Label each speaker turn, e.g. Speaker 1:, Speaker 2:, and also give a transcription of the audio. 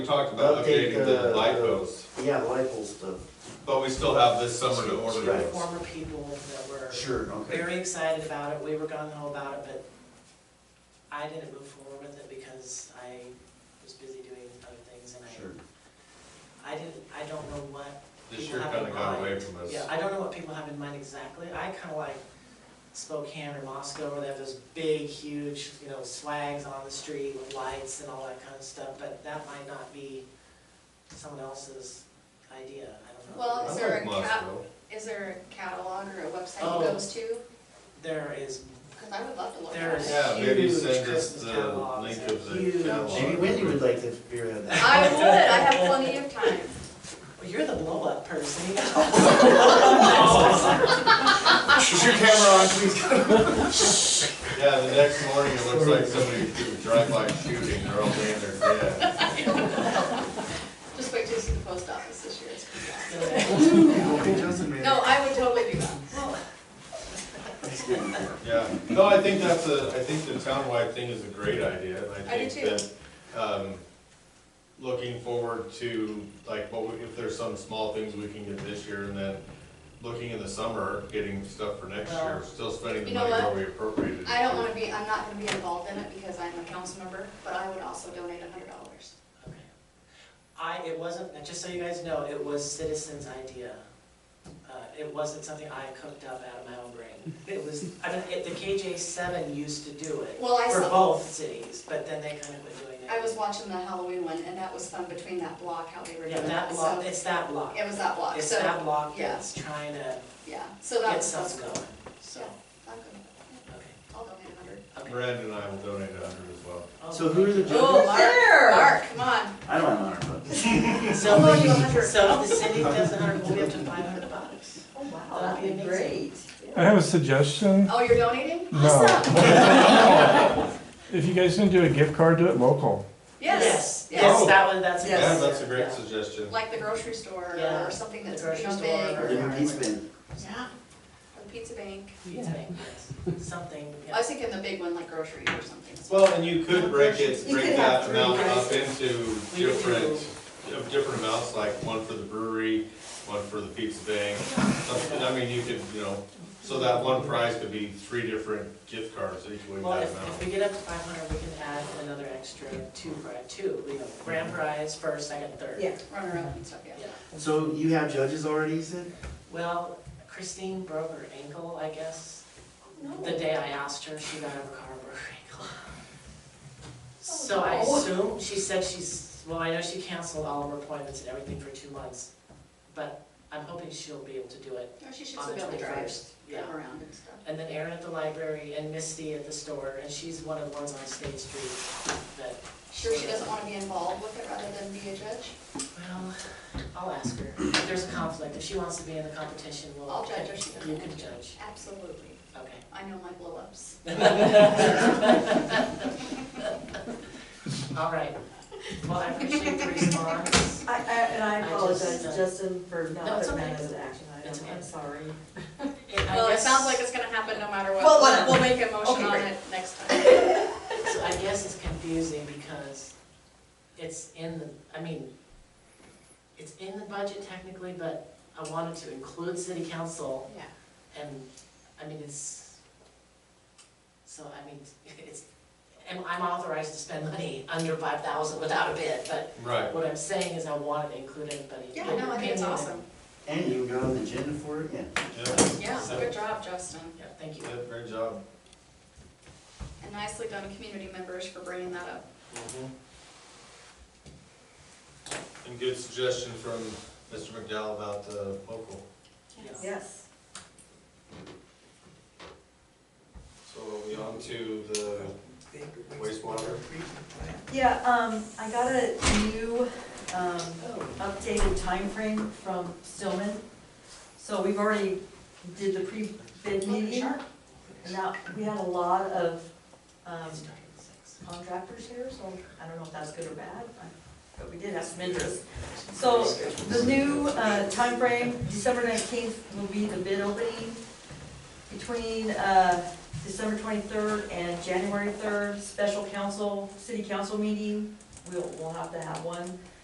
Speaker 1: We talked about
Speaker 2: Update
Speaker 1: updating the
Speaker 2: the-
Speaker 1: light bulbs,
Speaker 2: Yeah, Leifel's stuff.
Speaker 1: but we still have this summer to order
Speaker 2: Right.
Speaker 1: those.
Speaker 3: former people that were
Speaker 2: Sure,
Speaker 3: very excited about it, we were gung ho about it, but I didn't move forward with it because I was busy doing other things and
Speaker 2: Sure.
Speaker 3: I, I didn't, I don't know what.
Speaker 1: This
Speaker 3: people
Speaker 1: year
Speaker 3: have in
Speaker 1: kinda got away
Speaker 3: mind.
Speaker 1: from us.
Speaker 3: Yeah, I don't know what people have in mind exactly, I kinda like Spokane or Moscow, where they have those big, huge, you know, swags on the street with lights and all that kind of stuff, but that might not be someone else's idea, I don't know.
Speaker 1: I
Speaker 4: Well, Is there
Speaker 1: like
Speaker 4: a cap?
Speaker 1: Moscow.
Speaker 4: Is there a catalog or a website
Speaker 3: Oh.
Speaker 4: it goes to?
Speaker 3: There is
Speaker 4: Because I would love to look
Speaker 3: There
Speaker 4: at
Speaker 3: is
Speaker 4: it.
Speaker 1: Yeah, maybe
Speaker 3: huge
Speaker 1: send us
Speaker 3: Christmas
Speaker 1: the
Speaker 3: catalogs
Speaker 1: link
Speaker 3: and
Speaker 1: of the
Speaker 3: huge-
Speaker 1: catalog.
Speaker 2: Maybe Wendy would like to figure out that.
Speaker 4: I would, I have plenty of time.
Speaker 3: Well, you're the blow up person.
Speaker 2: Is your camera on, please?
Speaker 1: Yeah, the next morning, it looks like somebody did a drive-by shooting, they're all laying there dead.
Speaker 4: Just wait till you see the post office this year. It's gonna be awesome.
Speaker 2: Okay, Johnson, man.
Speaker 4: No, I would totally do that.
Speaker 1: Yeah, no, I think that's a, I think the townwide thing is a great idea, and
Speaker 4: I
Speaker 1: I
Speaker 4: do
Speaker 1: think that, um, looking forward to, like, what, we- if there's some small things we can get this year, and then looking in the summer, getting stuff for next year,
Speaker 3: Well,
Speaker 1: still spending the
Speaker 4: you know
Speaker 1: money where
Speaker 4: what?
Speaker 1: we appropriated. it
Speaker 4: I don't
Speaker 1: to.
Speaker 4: want to be, I'm not going to be involved in it because I'm a council member, but I would also donate a hundred dollars.
Speaker 3: I, it wasn't, just so you guys know, it was citizens' idea. Uh, It wasn't something I cooked up out of my own brain. It was, I mean, it- the KJ seven used to do it
Speaker 4: Well, I
Speaker 3: for
Speaker 4: saw,
Speaker 3: both cities, but then they kind of quit doing it.
Speaker 4: I was watching the Halloween one and that was fun between that block, how they were doing
Speaker 3: Yeah,
Speaker 4: it.
Speaker 3: that
Speaker 4: So,
Speaker 3: block, it's that block.
Speaker 4: It was that block,
Speaker 3: It's
Speaker 4: so,
Speaker 3: that block
Speaker 4: yeah.
Speaker 3: that's trying to
Speaker 4: yeah, so that
Speaker 3: get
Speaker 4: was
Speaker 3: something
Speaker 4: fun.
Speaker 3: going, so,
Speaker 4: Yeah, I'm good with
Speaker 3: okay,
Speaker 4: that. I'll donate a hundred.
Speaker 3: okay.
Speaker 1: Miranda and I will donate a hundred as well.
Speaker 2: So who are the
Speaker 4: Oh,
Speaker 2: judges?
Speaker 4: Mark, Mark, come on.
Speaker 2: I don't have honor books.
Speaker 3: So,
Speaker 4: I'll loan you a hundred.
Speaker 3: so if the city does a hundred, we'll be up to five hundred bucks.
Speaker 4: Oh, wow,
Speaker 3: that'd be
Speaker 4: great.
Speaker 5: I have a suggestion.
Speaker 4: Oh, you're donating?
Speaker 5: No.
Speaker 4: Awesome.
Speaker 5: If you guys can do a gift card, do it local.
Speaker 4: Yes,
Speaker 3: Yes,
Speaker 1: Oh.
Speaker 4: yes,
Speaker 3: that was, that's. a good
Speaker 1: Yeah,
Speaker 3: idea.
Speaker 1: that's a
Speaker 3: Yeah.
Speaker 1: great suggestion.
Speaker 4: like the grocery store
Speaker 3: Yeah.
Speaker 4: or something
Speaker 3: The
Speaker 4: that's,
Speaker 3: grocery
Speaker 4: you know,
Speaker 3: store
Speaker 4: big.
Speaker 3: or-
Speaker 2: The new piece bin.
Speaker 4: Yeah. Or the pizza bank.
Speaker 3: Pizza bank, yes. Something,
Speaker 4: I
Speaker 3: yeah.
Speaker 4: was thinking the big one, like grocery or something.
Speaker 1: Well, and you could break it,
Speaker 6: You
Speaker 1: break
Speaker 6: could
Speaker 1: that
Speaker 6: have
Speaker 1: amount
Speaker 6: three,
Speaker 1: up into
Speaker 3: We would
Speaker 1: different,
Speaker 3: do-
Speaker 1: of different amounts, like one for the brewery, one for the pizza bank. Something, I mean, you could, you know, so that one prize could be three different gift cards equaling
Speaker 3: Well,
Speaker 1: that
Speaker 3: if, if
Speaker 1: amount.
Speaker 3: we get up to five hundred, we can add another extra two, pri- two, you know, grand prize, first, second, third.
Speaker 6: Yeah.
Speaker 4: Runner up and stuff, yeah.
Speaker 3: Yeah.
Speaker 2: So you have judges already, you said?
Speaker 3: Well, Christine broke her ankle, I guess.
Speaker 4: Oh.
Speaker 3: The day I asked her, she got out of her car and broke her ankle. So I
Speaker 4: Oh, no.
Speaker 3: assume, she said she's, well, I know she canceled all of her appointments and everything for two months, but I'm hoping she'll be able to do it
Speaker 4: Or Oh, she should
Speaker 3: on
Speaker 4: still
Speaker 3: the
Speaker 4: be able to drive,
Speaker 3: twenty-first. Yeah.
Speaker 4: drive around and stuff.
Speaker 3: And then Erin at the library and Misty at the store, and she's one of the ones on State Street that,
Speaker 4: Sure, she doesn't want to be involved with it rather than be a judge.
Speaker 3: well, I'll ask her. If there's a conflict, if she wants to be in the competition, we'll.
Speaker 4: I'll judge her, she doesn't
Speaker 3: You
Speaker 4: want
Speaker 3: can
Speaker 4: to.
Speaker 3: judge,
Speaker 4: Absolutely.
Speaker 3: okay.
Speaker 4: I know my blowups.
Speaker 3: All right. Well, I appreciate the response.
Speaker 6: I, I, and I
Speaker 3: I just,
Speaker 6: apologize,
Speaker 3: uh,
Speaker 6: Justin, for
Speaker 3: No,
Speaker 6: not
Speaker 3: it's
Speaker 6: putting
Speaker 3: okay.
Speaker 6: that as an action
Speaker 3: It's
Speaker 6: item,
Speaker 3: okay.
Speaker 6: I'm sorry.
Speaker 3: And I
Speaker 4: Well, it
Speaker 3: guess-
Speaker 4: sounds like it's going to happen no matter what.
Speaker 6: Well,
Speaker 4: We'll-
Speaker 6: whatever.
Speaker 4: We'll make a motion
Speaker 6: Okay,
Speaker 4: on
Speaker 6: great.
Speaker 4: it next time.
Speaker 3: So I guess it's confusing because it's in the, I mean, it's in the budget technically, but I wanted to include city council
Speaker 4: Yeah.
Speaker 3: and, I mean, it's, so, I mean, it's, I'm I'm authorized to spend money under five thousand without a bid, but
Speaker 1: Right,
Speaker 3: what I'm saying is I wanted to include everybody.
Speaker 4: Yeah, no, I think it's awesome.
Speaker 2: And you got an agenda for it, yeah.
Speaker 1: yeah,
Speaker 4: Yeah, good job, Justin.
Speaker 3: Yeah, thank you.
Speaker 1: yeah, great job.
Speaker 4: And nicely done, community members, for bringing that up.
Speaker 1: Mm-hmm. And good suggestion from Mr. McDowell about the local.
Speaker 3: Yes.
Speaker 6: Yes.
Speaker 1: So are we on to the wastewater?
Speaker 6: Yeah, um, I got a new, um,
Speaker 3: Oh.
Speaker 6: updated timeframe from Stillman. So we've already did the
Speaker 3: Oh,
Speaker 6: pre-bid meeting, and now, we had a lot of, um, contractors here, so I don't know if that's good or bad, but we did have some interest. So the new uh, timeframe, December nineteenth will be the bid opening. Between uh, December twenty-third and January third, special council, city council meeting. we'll, we'll have to have one